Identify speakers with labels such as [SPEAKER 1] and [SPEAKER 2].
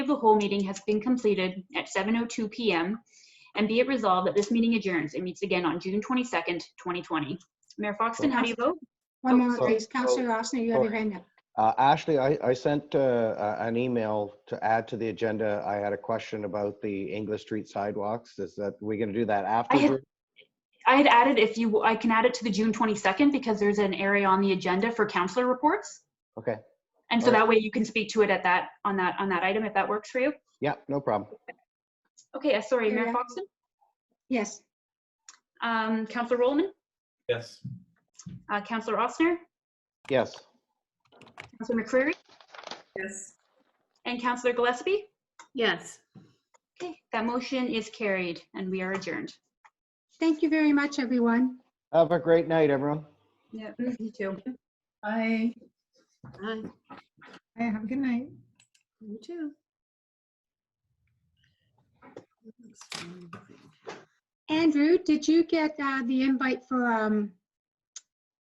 [SPEAKER 1] the whole meeting has been completed at 7:02 PM. And be it resolved that this meeting adjourns and meets again on June 22nd, 2020. Mayor Foxton, how do you vote?
[SPEAKER 2] One moment,
[SPEAKER 3] so-
[SPEAKER 2] please. Counselor Rosner, you have your hand up.
[SPEAKER 3] Uh, Ashley, I, I sent uh, a- an email to add to the agenda. I had a question about the English Street sidewalks. Is that, we going to do that after?
[SPEAKER 1] had-
[SPEAKER 3] Drew?
[SPEAKER 1] I had added if you, I can add it to the June 22nd because there's an area on the agenda for counselor reports.
[SPEAKER 3] Okay,
[SPEAKER 1] And so
[SPEAKER 3] All right.
[SPEAKER 1] that way you can speak to it at that, on that, on that item if that works for you.
[SPEAKER 3] yeah, no problem.
[SPEAKER 1] Okay, uh, sorry, Mayor
[SPEAKER 2] Yeah.
[SPEAKER 1] Foxton,
[SPEAKER 2] Yes,
[SPEAKER 1] um, Counselor Rollman,
[SPEAKER 4] Yes.
[SPEAKER 1] uh, Counselor Ossner,
[SPEAKER 3] Yes,
[SPEAKER 1] Counselor McCreary,
[SPEAKER 5] Yes.
[SPEAKER 1] and Counselor Gillespie.
[SPEAKER 5] Yes.
[SPEAKER 1] Okay, that motion is carried and we are adjourned.
[SPEAKER 2] thank you very much, everyone.
[SPEAKER 3] have a great night, everyone.
[SPEAKER 1] Yeah, you too.
[SPEAKER 6] Bye.
[SPEAKER 5] Aye.
[SPEAKER 6] Bye, Have a good night.
[SPEAKER 5] You too. That looks fine.
[SPEAKER 2] Andrew, did you get uh, the invite for um,